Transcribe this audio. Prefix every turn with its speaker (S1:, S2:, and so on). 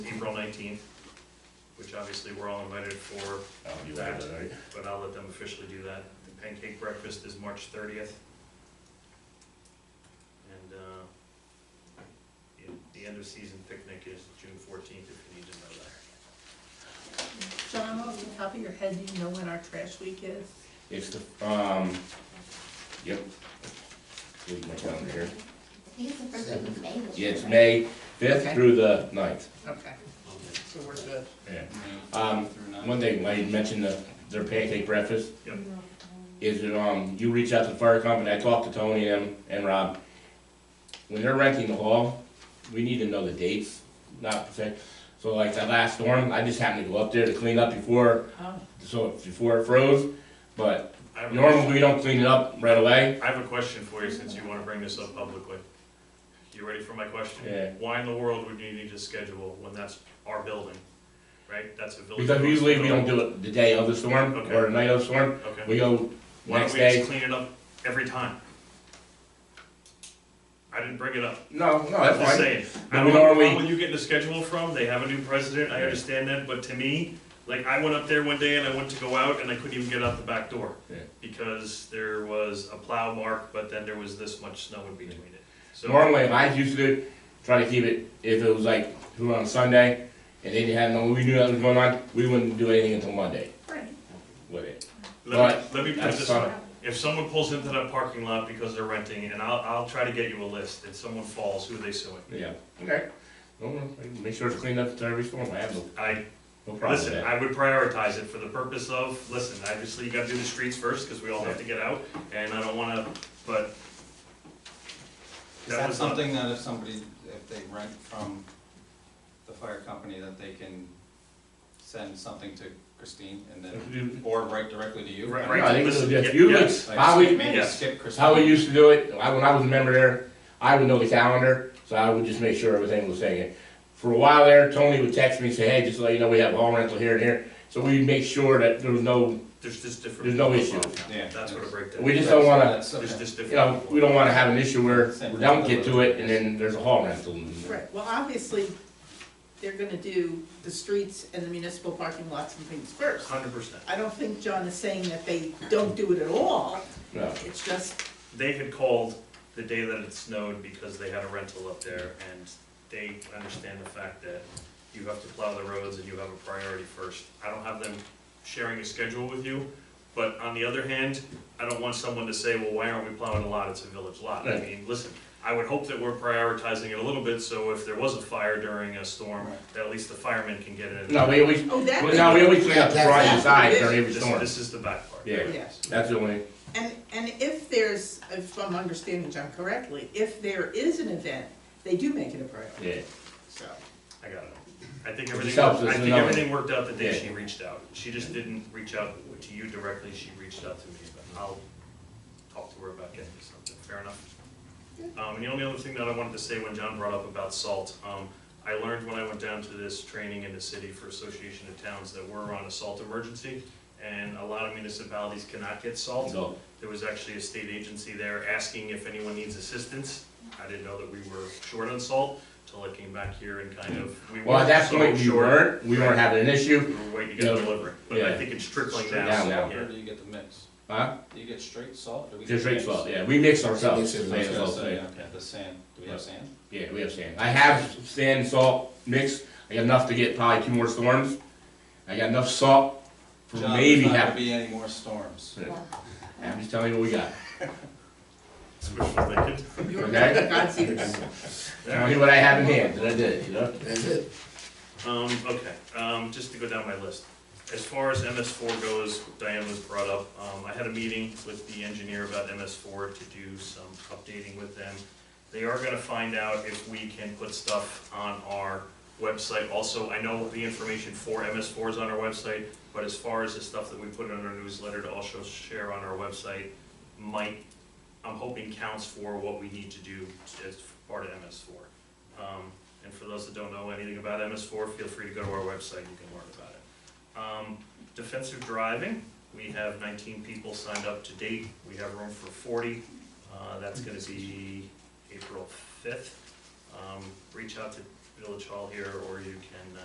S1: April nineteenth, which obviously we're all invited for,
S2: Oh, you read that, right?
S1: but I'll let them officially do that. The pancake breakfast is March thirtieth. And, uh, the- the end of season picnic is June fourteenth, if you need to know that.
S3: John, off the top of your head, do you know when our trash week is?
S2: It's the, um, yep. Here's my calendar here.
S4: think it's the first week of May. this
S2: Yeah,
S4: year,
S2: it's
S4: right?
S2: May fifth
S5: Okay.
S2: through the ninth.
S3: Okay, so we're good.
S2: Yeah. Um,
S5: May through nine.
S2: One thing, I mentioned the, their pancake breakfast.
S1: Yep.
S2: Is it, um, you reach out to the fire company, I talked to Tony and, and Rob. When they're renting the hall, we need to know the dates, not per se. So like that last storm, I just happened to go up there to clean up before,
S3: Oh,
S2: so before it froze. But
S1: I have a
S2: normally we don't clean it up right away.
S1: I have a question for you, since you wanna bring this up publicly. You ready for my question?
S2: Yeah.
S1: Why in the world would you need to schedule when that's our building, right? That's a village.
S2: Because usually we don't do it the day of the storm
S1: Okay.
S2: or the night of the storm.
S1: Okay.
S2: We go
S1: Why don't
S2: next
S1: we just
S2: day.
S1: clean it up every time? I didn't bring it up.
S2: No,
S1: I'm
S2: no, Oh, that's
S1: just
S2: fine.
S1: saying.
S2: But
S1: I
S2: we
S1: don't know
S2: normally-
S1: where you getting the schedule from. They have a new president. I understand that, but to me, like, I went up there one day and I went to go out and I couldn't even get out the back door.
S2: Yeah.
S1: Because there was a plow mark, but then there was this much snow in between it. So,
S2: Normally, if I used to try to keep it, if it was like, we were on Sunday, and they didn't have no, we knew that was going on, we wouldn't do anything until Monday with it.
S1: let me, let me put it
S2: That's
S1: this way.
S2: fine.
S1: If someone pulls into that parking lot because they're renting, and I'll, I'll try to get you a list, and someone falls, who are they suing?
S2: Yeah, okay. No, no, Make sure it's cleaned up to every storm, I have no,
S1: I,
S2: no problem with
S1: Listen,
S2: that.
S1: I would prioritize it for the purpose of, listen, obviously you gotta do the streets first, cause we all have to get out, and I don't wanna, but.
S5: Is
S1: that
S5: that
S1: was not-
S5: something that if somebody, if they rent from the fire company, that they can send something to Christine and then, or write directly to you?
S1: Mm-hmm. Right,
S2: No, I think it's
S1: listen,
S2: just,
S1: yeah,
S2: usually,
S1: yes.
S5: Like,
S2: how we,
S5: maybe
S1: yes.
S5: skip
S2: how we
S5: Christine.
S2: used to do it, I, when I was a member there, I would know the calendar, so I would just make sure everything was saying. For a while there, Tony would text me, and say, hey, just to let you know, we have all rental here and here, so we'd make sure that there was no
S1: There's just different.
S2: There's no issue.
S5: Yeah.
S1: That's what a breakdown.
S2: We just don't wanna,
S5: That's
S1: There's
S5: okay.
S1: just
S2: you know,
S1: different.
S2: we don't wanna have an issue where we don't get to it and then there's a hall rental.
S3: Right, well, obviously, they're gonna do the streets and the municipal parking lots and things first.
S1: Hundred percent.
S3: I don't think John is saying that they don't do it at all,
S2: No.
S3: it's just,
S1: They had called the day that it snowed because they had a rental up there, and they understand the fact that you have to plow the roads and you have a priority first. I don't have them sharing a schedule with you, but on the other hand, I don't want someone to say, well, why aren't we plowing a lot, it's a village lot. I
S2: Right.
S1: mean, listen, I would hope that we're prioritizing it a little bit, so if there was a fire during a storm, that at least the firemen can get in.
S2: No, we always,
S3: oh, that.
S2: no, we always clean up the front and side during every
S1: This,
S2: storm.
S1: this is the bad part.
S2: Yeah,
S3: Yes.
S2: that's the only,
S3: And, and if there's, if I'm understanding John correctly, if there is an event, they do make it a priority,
S2: yeah.
S3: so.
S1: I got it. I think
S2: It
S1: everything,
S2: just helps
S1: worked- I
S2: us to
S1: think
S2: know.
S1: everything worked out the day
S2: Yeah.
S1: she reached out. She just didn't reach out to you directly, she reached out to me, but I'll talk to her about getting you something, fair enough? Um, and the only other thing that I wanted to say when John brought up about salt, um, I learned when I went down to this training in the city for Association of Towns that we're on a salt emergency, and a lot of municipalities cannot get salt.
S2: So,
S1: There was actually a state agency there asking if anyone needs assistance. I didn't know that we were short on salt until I came back here and kind of, we were
S2: Well, at that
S1: so
S2: point, we
S1: short,
S2: weren't, we weren't having an issue,
S1: We were waiting to get
S2: Yeah.
S1: delivery, but I
S2: Yeah.
S1: think it's trickling
S2: Straight
S1: down.
S2: down now.
S1: yeah.
S5: Or do you get the mix?
S2: huh?
S5: Do you get straight salt? Do we get
S2: Just rates
S5: mix?
S2: well, yeah, we mix ourselves.
S5: I was gonna say,
S2: Yeah,
S5: okay, the sand, do we have sand?
S2: we have sand. I have sand and salt mixed, I got enough to get probably two more storms. I got enough salt for
S5: John,
S2: maybe
S5: There's not gonna
S2: half,
S5: be any more storms.
S2: I'm just telling you what we got,
S1: It's wishful thinking.
S3: You're
S2: Okay.
S3: God's ears.
S2: tell me what I have in hand, and I did, you know?
S1: Um, okay, um, just to go down my list. As far as MS four goes, Diane was brought up, um, I had a meeting with the engineer about MS four to do some updating with them. They are gonna find out if we can put stuff on our website. Also, I know the information for MS four is on our website, but as far as the stuff that we put in our newsletter to also share on our website, might, I'm hoping counts for what we need to do as part of MS four. Um, and for those that don't know anything about MS four, feel free to go to our website, you can learn about it. Um, defensive driving, we have nineteen people signed up to date, we have room for forty, uh, that's gonna be April fifth. Um, reach out to Village Hall here, or you can, uh,